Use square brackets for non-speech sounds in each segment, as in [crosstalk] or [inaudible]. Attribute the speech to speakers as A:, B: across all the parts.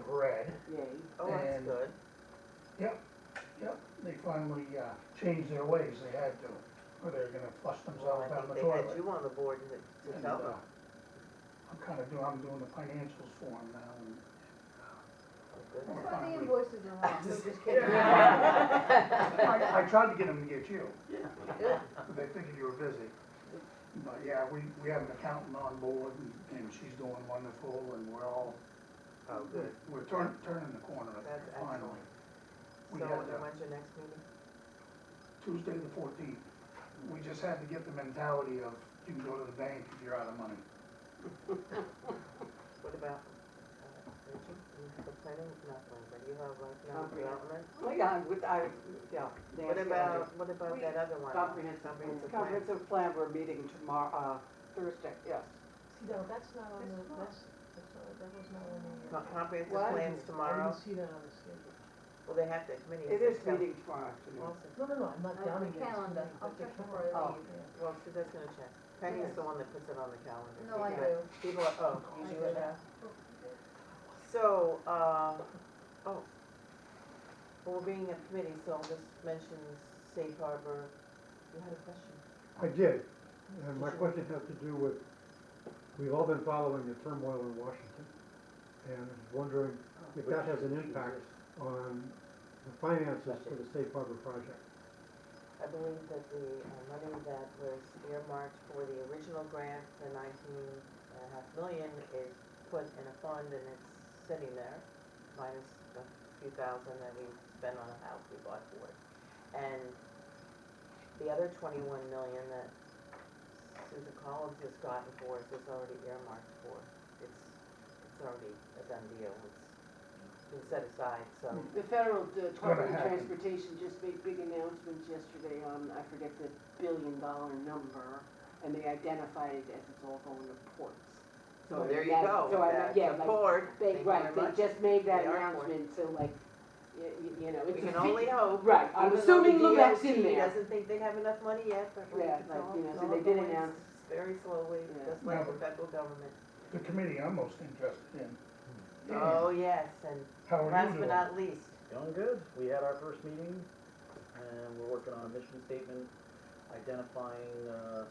A: okay,
B: Yay, oh, that's
A: And-
B: good.
C: Yep, they finally, uh, changed their ways, they had to, or they're gonna flush
B: Well,
C: themselves
B: I
C: down
B: think
C: the
B: they had
C: toilet.
B: you on the board to, to
C: And,
B: tell
C: uh,
B: them.
C: I'm kinda doing, I'm doing the financials for them now, and
B: Oh, goodness.
C: Well,
D: That's why the invoices are wrong, we're
B: [laughs]
D: just
B: Oh,
D: kidding.
C: I, I tried to get them to get you,
D: Good.
C: but [laughs] they figured you were busy. But yeah, we, we have an accountant on board, and, and she's doing wonderful, and we're all,
B: Oh, good.
C: we're turning, turning the corner, I
B: That's
C: think, finally.
B: excellent. So,
C: We
B: and
C: had,
B: then
C: uh,
B: when's your next meeting?
C: Tuesday the fourteenth, we just had to get the mentality of, you can go to the bank if you're out of money.
B: What about, uh, Rachel, you have a planning, not planning, but you have like, no
E: Comprehensive.
B: development?
E: Well, yeah, with, I, yeah. Nancy, I
B: What
E: do.
B: about, what about that other one?
E: Comprehensive,
B: Comprehensive plan.
E: comprehensive plan, we're meeting tomorrow, uh, Thursday, yes.
D: No, that's not on the,
E: That's not.
D: that's, that's not, that was not on the.
B: Co- Comprehensive
E: What?
B: plans
D: I
B: tomorrow?
D: didn't see that on the schedule.
B: Well, they have that committee.
E: It is meeting tomorrow afternoon.
B: Well, so-
D: No, no, no, I'm not
F: Uh,
D: down
F: the
D: against it.
F: calendar.
D: but
F: I'll
D: the
F: check
D: calendar,
F: before I
E: Oh.
F: leave.
D: yeah.
B: well, she's just gonna check. Peggy's the one that puts it on the calendar.
F: No,
B: She
F: I do.
B: does. People are, oh, you
F: I
B: do
F: do
B: it now?
F: that.
B: So, uh, oh, well, we're being a committee, so I'll just mention safe harbor. You had a question?
G: I did, and my question has to do with, we've all been following the turmoil in Washington, and wondering if that has an impact on the finances for the safe harbor project.
B: I believe that the uh, money that was earmarked for the original grant, the nineteen and a half million, is put in a fund and it's sitting there, minus a few thousand that we spent on a house we bought for it. And the other twenty-one million that Susan Collins has gotten for us is already earmarked for. It's, it's already a done deal, it's been set aside, so.
H: The federal uh, Department of
C: happen.
H: Transportation just made big announcements yesterday on, I forget the billion dollar number, and they identified it as it's all going to ports. So
B: Well, there you
H: that-
B: go,
H: So I,
B: that's
H: yeah,
B: the
H: like,
B: board.
H: they,
B: Thank you
H: right,
B: very much.
H: they just made that
B: They are ports.
H: announcement, so like, you, you know,
B: We
H: it's a.
B: can
H: big-
B: only hope.
H: Right, I'm
B: even though
H: assuming
B: the
H: Lubeck's
B: DOT
H: in there.
B: Doesn't think they have enough money yet, but we-
H: Yeah,
B: it's
H: like,
B: all-
H: you know,
B: it's
H: so
B: all
H: they did
B: going
H: announce-
B: Very slowly,
H: Yeah.
B: just like the
C: Yeah.
B: federal government.
C: The committee I'm most interested in.
B: Oh, yes, and
I: Oh,
C: How are you
B: last
C: doing?
B: but not least,
I: Going good. We had our first meeting and we're working on a mission statement, identifying, uh,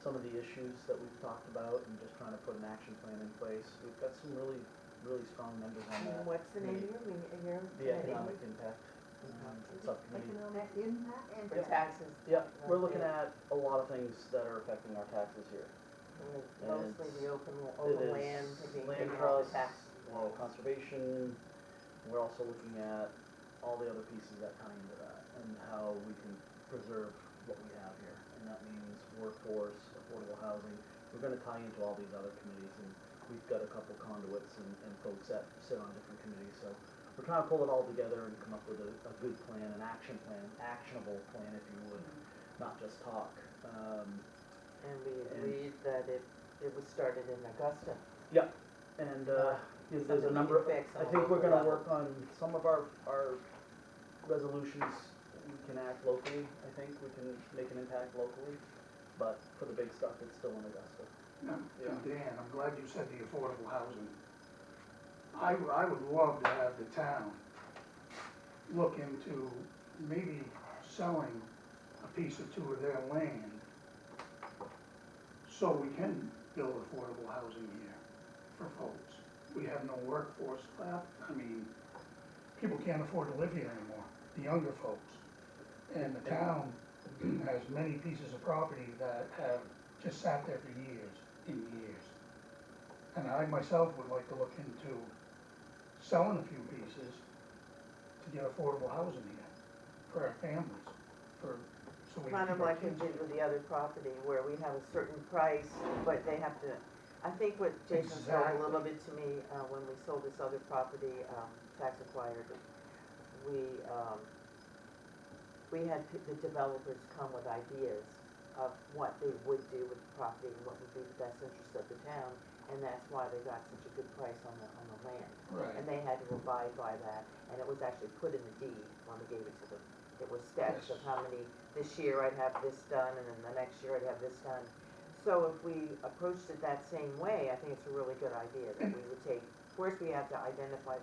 I: some of the issues that we've talked about and just trying to put an action plan in place. We've got some really, really strong members on that.
B: what's the name of your, meeting- your? committee?
I: The economic impact um, subcommittee.
D: Economic,
F: That impact and.
B: For taxes.
I: Yep, we're looking at a lot of things that are affecting our taxes here.
B: Mostly the open,
I: It
B: open
I: is
B: land, to being
I: land
B: taken off the
I: trust,
B: tax.
I: rural conservation. We're also looking at all the other pieces that tie into that and how we can preserve what we have here. And that means workforce, affordable housing. We're gonna tie into all these other committees and we've got a couple conduits and, and folks that sit on different committees. So we're trying to pull it all together and come up with a, a good plan, an action plan, actionable plan if you would,
B: Mm-hmm.
I: not just talk. Um,
B: And we
I: And-
B: agreed that it, it was started in Augusta.
I: And, uh, there's there's a
B: Something
I: number,
B: we can fix
I: I
B: on a
I: think we're
B: local
I: gonna
B: level.
I: work on some of our, our resolutions, we can act locally, I think, we can make an impact locally, but for the big stuff, it's still in Augusta.
C: No, and Dan, I'm glad you said the affordable housing. I, w- I would love to have the town look into maybe selling a piece or two of their land so we can build affordable housing here for folks. We have no workforce left, I mean, people can't afford to live here anymore, the younger folks. And the town has many pieces of property that have just sat there for years and years. And I myself would like to look into selling a few pieces to get affordable housing here for our families, for, so we. can
B: Kind of
C: keep our
B: like we
C: kids
B: did with the other property where we have a certain price, but they have to, I think what Jason said a little
C: Exactly.
B: bit to me, uh, when we sold this other property, um, tax acquired, we, um, we had p- the developers come with ideas of what they would do with the property and what would be the best interest of the town, and that's why they got such a good price on the, on the land.
C: Right,
B: And they had to abide by that, and it was actually put in the deed when we gave it to them. It was steps of
C: Yes.
B: how many, this year I'd have this done, and then the next year I'd have this done. So if we approached it that same way, I think it's a really good idea, that we would take, first we have to identify